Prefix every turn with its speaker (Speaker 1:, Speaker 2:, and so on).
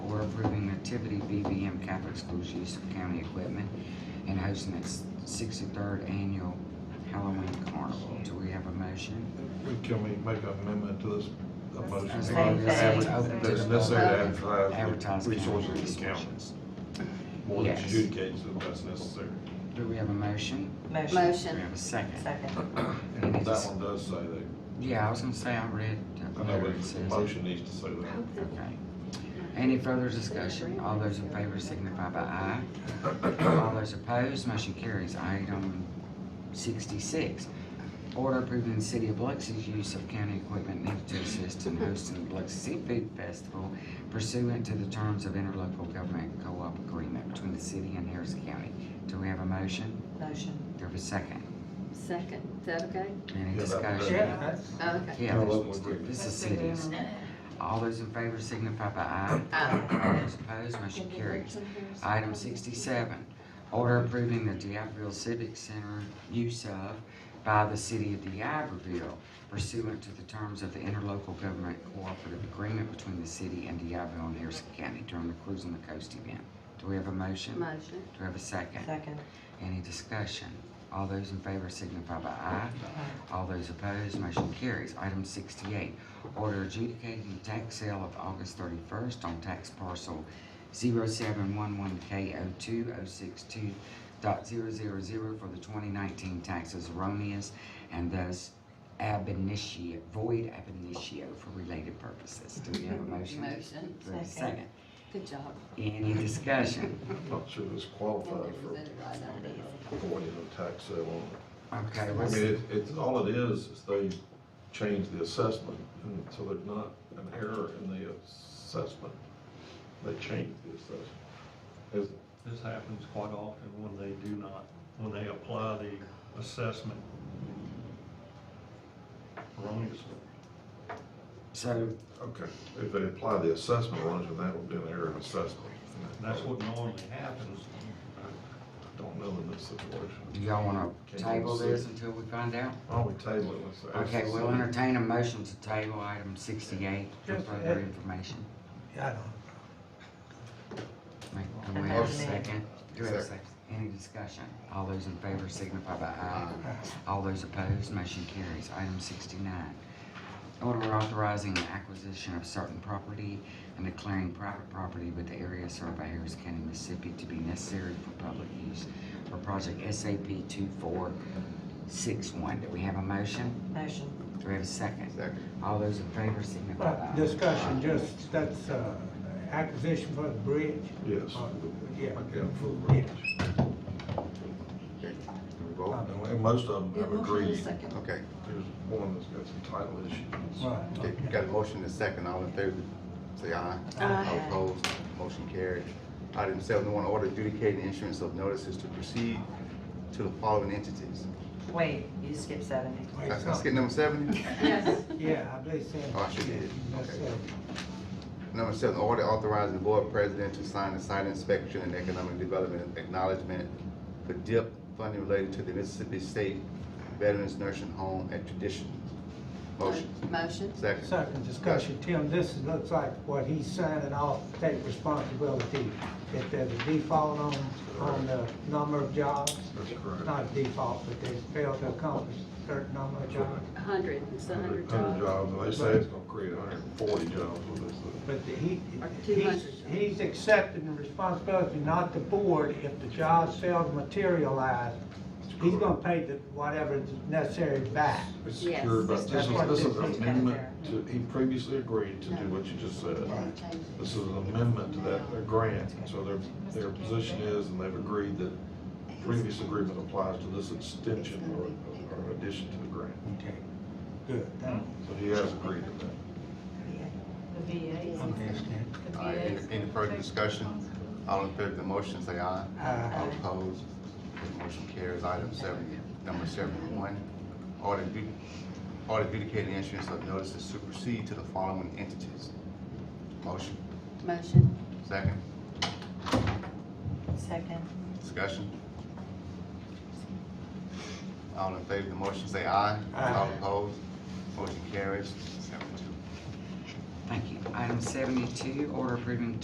Speaker 1: activity BVM Catholic Schools Use of County Equipment and hosting its sixty-third annual Halloween Carnival. Do we have a motion?
Speaker 2: We- Can we make an amendment to this, a motion?
Speaker 1: As
Speaker 2: to
Speaker 1: long as it's
Speaker 2: adver-
Speaker 1: open to
Speaker 2: That's
Speaker 1: the
Speaker 2: necessary to
Speaker 1: public,
Speaker 2: advertise
Speaker 1: advertise
Speaker 2: the
Speaker 1: county
Speaker 2: resources of the county.
Speaker 1: resources.
Speaker 2: One
Speaker 1: Yes.
Speaker 2: adjudicates that that's necessary.
Speaker 1: Do we have a motion?
Speaker 3: Motion.
Speaker 1: Do we
Speaker 4: Motion,
Speaker 1: have a second?
Speaker 3: Second.
Speaker 2: And that one does say that.
Speaker 1: Yeah, I was gonna say I read.
Speaker 2: I know,
Speaker 1: where it
Speaker 2: but the
Speaker 1: says it.
Speaker 2: motion needs to say that.
Speaker 1: Okay. Any further discussion? All those in favor signify by aye. All those opposed, motion carries. Item sixty-six. Order approving the city of Biloxi's use of county equipment needed to assist in hosting the Biloxi Seafood Festival pursuant to the terms of interlocal government co-op agreement between the city and Harris County. Do we have a motion?
Speaker 3: Motion.
Speaker 1: Do we have a second?
Speaker 4: second, is that okay?
Speaker 1: Any
Speaker 2: Yeah, that- that-
Speaker 1: discussion?
Speaker 4: Okay.
Speaker 1: Yeah,
Speaker 2: Interlocal
Speaker 1: that's-
Speaker 2: agreement.
Speaker 1: this is cities. All those in favor signify by aye.
Speaker 4: Aye.
Speaker 1: All those opposed, motion carries. Item sixty-seven, order approving the DeIberville Civic Center use of by the city of DeIberville pursuant to the terms of the interlocal government cooperative agreement between the city and DeIberville and Harrison County during the Cruise on the Coast event. Do we have a motion? Do
Speaker 4: Motion,
Speaker 1: we have a second?
Speaker 3: Second.
Speaker 1: Any discussion? All those in favor signify by aye. All those opposed, motion carries. Item sixty-eight, order adjudicating the tax sale of August thirty-first on tax parcel 711 K O two oh six two dot zero zero zero for the twenty nineteen taxes erroneous and thus ab initio, void ab initio for related purposes. Do we have a motion?
Speaker 4: Motion.
Speaker 1: Do we have a
Speaker 3: Second.
Speaker 1: second?
Speaker 4: good job.
Speaker 1: Any discussion?
Speaker 2: I'm not sure this qualifies for avoiding a tax sale on it.
Speaker 1: Okay,
Speaker 2: I
Speaker 1: let's-
Speaker 2: mean, it- it's, all it is, is they change the assessment, and so there's not an error in the assessment. They change the assessment. Is-
Speaker 5: This happens quite often when they do not, when they apply the assessment erroneously.
Speaker 1: so
Speaker 2: Okay, if they apply the assessment wrong, then that would be an error in assessment.
Speaker 5: And That's what normally happens.
Speaker 2: I Don't know in this
Speaker 1: Do
Speaker 2: situation.
Speaker 1: y'all wanna
Speaker 2: Can you
Speaker 1: table
Speaker 2: see?
Speaker 1: this until we find out?
Speaker 2: Why don't we table it? Let's ask
Speaker 1: Okay,
Speaker 2: the
Speaker 1: we'll
Speaker 2: city.
Speaker 1: entertain a motion to table item sixty-eight for
Speaker 6: Yes,
Speaker 1: further
Speaker 6: uh,
Speaker 1: information.
Speaker 6: Yeah, I don't.
Speaker 1: Make- Do we have a
Speaker 3: Amendment.
Speaker 1: second? Do we have a second? Any discussion? All those in favor signify by aye. All those opposed, motion carries. Item sixty-nine. Order authorizing the acquisition of certain property and declaring private property with the area served by Harris County, Mississippi to be necessary for public use for project SAP two four six one. Do we have a motion?
Speaker 3: Motion.
Speaker 1: Do we have a second? Second. All those in favor signify by
Speaker 6: But
Speaker 1: aye.
Speaker 6: discussion, just, that's, uh, acquisition for the bridge.
Speaker 2: Yes.
Speaker 6: Uh, Yeah.
Speaker 2: Again, for the bridge. And and most of them have agreed.
Speaker 4: Second.
Speaker 7: Okay,
Speaker 2: There's one that's got some title issues.
Speaker 6: Right,
Speaker 7: okay,
Speaker 6: okay.
Speaker 7: got a motion and a second, all in favor, say aye. All
Speaker 4: Aye.
Speaker 7: opposed, motion carried. Item seven, one, order adjudicating issuance of notices to proceed to the following entities.
Speaker 3: Wait, you skipped seventy.
Speaker 6: Wait,
Speaker 7: Let's
Speaker 6: so-
Speaker 7: get number seven.
Speaker 4: Yes,
Speaker 6: Yeah, I believe so.
Speaker 7: Oh, I should get it.
Speaker 6: That's
Speaker 7: Okay.
Speaker 6: it.
Speaker 7: Number seven, order authorizing the board president to sign the site inspection and economic development acknowledgement for DIP funding related to the Mississippi State Veterans Nursing Home at Tradition. Motion,
Speaker 4: motion,
Speaker 7: second.
Speaker 6: Second discussion, Tim, this is- looks like what he's signing off, take responsibility. If there's a default on, on the number of jobs,
Speaker 2: That's correct.
Speaker 6: not a default, but they failed to accomplish a certain number of jobs.
Speaker 4: a hundred, it's a hundred
Speaker 2: Hundred
Speaker 4: jobs.
Speaker 2: jobs, and they say it's gonna create hundred and forty jobs with this. thing.
Speaker 6: But the- he,
Speaker 4: Or
Speaker 6: he's,
Speaker 4: 200.
Speaker 6: he's accepting the responsibility, not the board, if the job sales materialize. He's gonna pay the, whatever is necessary back.
Speaker 2: It's
Speaker 4: Yes,
Speaker 2: secured, but
Speaker 4: that's
Speaker 2: this is,
Speaker 6: what
Speaker 2: this
Speaker 6: it
Speaker 2: is an
Speaker 3: is.
Speaker 2: amendment to, he previously agreed to do what you just said. This is an amendment to that grant, so their, their position is, and they've agreed that previous agreement applies to this extension or, or addition to the grant.
Speaker 6: Okay, good.
Speaker 2: So he has agreed to that.
Speaker 8: The VA.
Speaker 7: All right, any, any further discussion? All in favor of the motion, say aye.
Speaker 6: Aye.
Speaker 7: All opposed, motion carries. Item seven, number seventy-one, order adju- order adjudicating issuance of notices supersede to the following entities. Motion,
Speaker 4: Motion,
Speaker 7: second,
Speaker 3: Uh, Second.
Speaker 7: discussion. All in favor of the motion, say aye.
Speaker 6: Aye.
Speaker 7: All opposed, motion carries. Seventy-two.
Speaker 1: Thank you. Item seventy-two, order approving